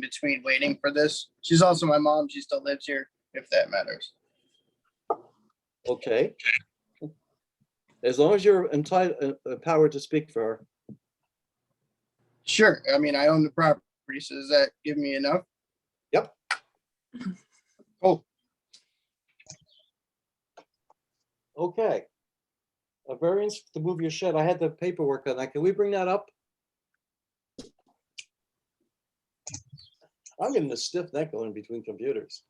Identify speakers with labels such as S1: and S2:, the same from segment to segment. S1: between waiting for this. She's also my mom. She still lives here, if that matters.
S2: Okay. As long as you're entitled, empowered to speak for her.
S1: Sure. I mean, I own the property, so does that give me enough?
S2: Yep.
S1: Cool.
S2: Okay. A variance to move your shed. I had the paperwork on that. Can we bring that up? I'm getting a stiff neck going between computers.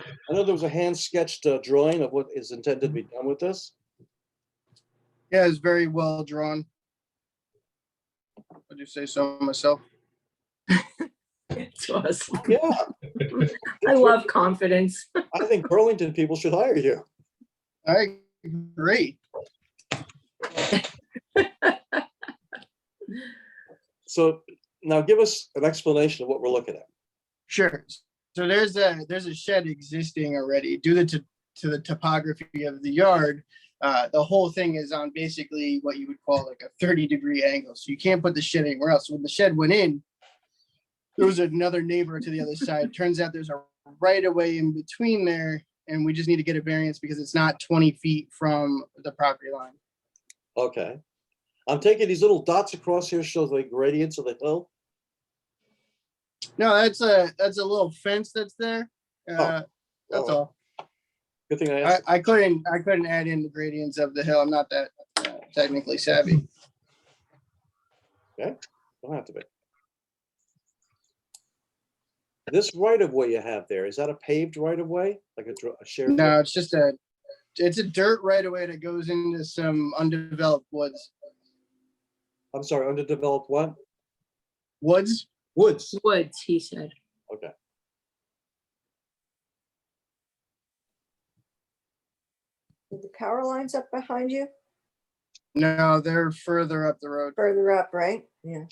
S2: I know there was a hand sketched uh, drawing of what is intended to be done with this.
S1: Yeah, it's very well drawn. Would you say so myself?
S3: It's us.
S2: Yeah,
S3: I love confidence.
S2: I think Burlington people should hire you.
S1: I agree.
S2: So now give us an explanation of what we're looking at.
S1: Sure. So there's a there's a shed existing already due to t- to the topography of the yard. Uh, the whole thing is on basically what you would call like a 30 degree angle. So you can't put the shed anywhere else. When the shed went in, there was another neighbor to the other side. Turns out there's a right of way in between there, and we just need to get a variance because it's not 20 feet from the property line.
S2: Okay. I'm taking these little dots across here shows the gradients of the hill.
S1: No, that's a that's a little fence that's there. Uh, that's
S2: Oh.
S1: all.
S2: Good thing I
S1: I,
S2: asked.
S1: I couldn't, I couldn't add in the gradients of the hill. I'm not that uh, technically savvy.
S2: Don't have to be. This right of way you have there, is that a paved right of way? Like a dr- a shared?
S1: No, it's just a, it's a dirt right away that goes into some undeveloped woods.
S2: I'm sorry, underdeveloped what?
S1: Woods?
S2: Woods.
S3: Woods, he said.
S2: Okay.
S4: Are The power lines up behind you,
S1: No, they're further up the road.
S4: further up, right? Yeah.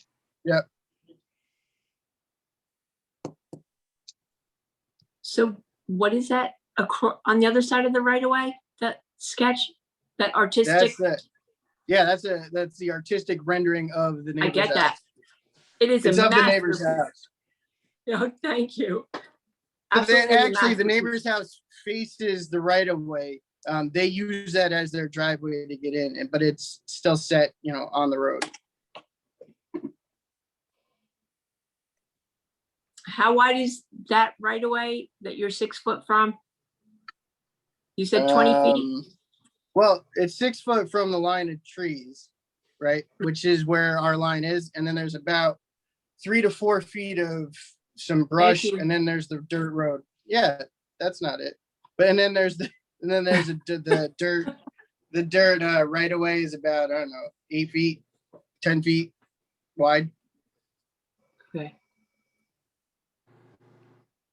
S3: So what is that across, on the other side of the right of way? That sketch, that artistic,
S1: That's the, yeah, that's a, that's the artistic rendering of the
S3: I
S1: neighbor's
S3: get
S1: house.
S3: that. It is a
S1: It's of the neighbor's
S3: masterpiece.
S1: house.
S3: No, thank you.
S1: But then
S3: Absolutely a
S1: actually, the
S3: masterpiece.
S1: neighbor's house faces the right of way. Um, they use that as their driveway to get in, and- but it's still set, you know, on the road.
S3: How wide is that right of way that you're six foot from? You said twenty feet?
S1: Um, Well, it's six foot from the line of trees, right? Which is where our line is. And then there's about three to four feet of some brush
S3: you.
S1: and then there's the dirt road. Yeah, that's not it. But and then there's the, and then there's the, the dirt, the dirt uh, right away is about, I don't know, eight feet, 10 feet wide.
S3: Okay.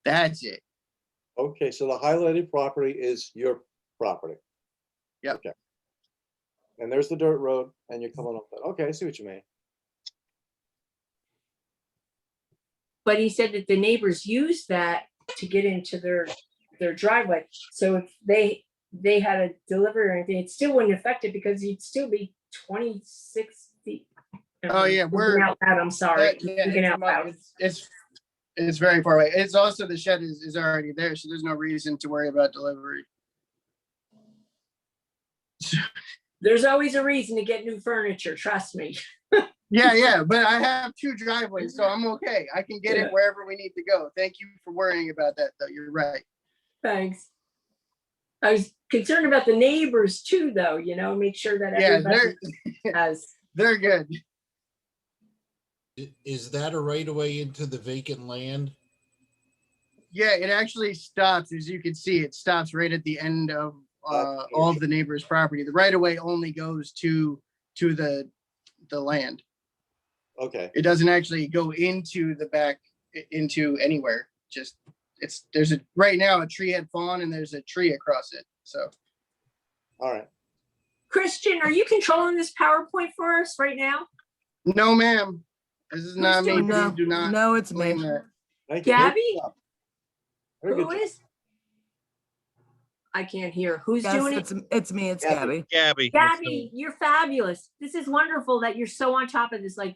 S1: That's it.
S2: Okay, so the highlighted property is your property.
S1: Yep.
S2: Okay. And there's the dirt road and you're coming up that. Okay, I see what you mean.
S3: But he said that the neighbors use that to get into their, their driveway. So if they, they had a delivery or anything, it still wouldn't affect it because you'd still be twenty-six feet.
S1: Oh, yeah,
S3: Thinking
S1: we're-
S3: Out loud, I'm sorry.
S1: That- yeah,
S3: Thinking
S1: it's
S3: out
S1: mo-
S3: loud.
S1: it's- It's, it's very far away. It's also the shed is, is already there, so there's no reason to worry about delivery.
S3: There's always a reason to get new furniture, trust me.
S1: Yeah, yeah, but I have two driveways, so I'm okay. I can get
S3: Yeah.
S1: it wherever we need to go. Thank you for worrying about that, though. You're right.
S3: Thanks. I was concerned about the neighbors too, though, you know, make sure that
S1: Yeah, they're,
S3: everybody has.
S1: they're good.
S5: I- Is that a right of way into the vacant land?
S1: Yeah, it actually stops, as you can see, it stops right at the end of, uh,
S2: Okay.
S1: all of the neighbor's property. The right of way only goes to, to the, the land.
S2: Okay,
S1: it doesn't actually go into the back i- into anywhere just it's there's a right now a tree had fallen and there's a tree across it so
S2: all right.
S3: Christian, are you controlling this PowerPoint for us right now?
S1: no ma'am this is not me
S3: doing
S1: please do not
S6: No, it's
S1: blame
S6: me.
S1: that
S2: Thank you. Very good
S3: Gabby?
S2: job. Very good
S3: Who
S2: job.
S3: is? I can't hear. Who's
S6: Yes,
S3: doing it?
S6: it's, it's me, it's
S2: Gabby.
S6: Gabby.
S7: Gabby. it's me.
S3: Gabby, you're fabulous. This is wonderful that you're so on top of this. Like,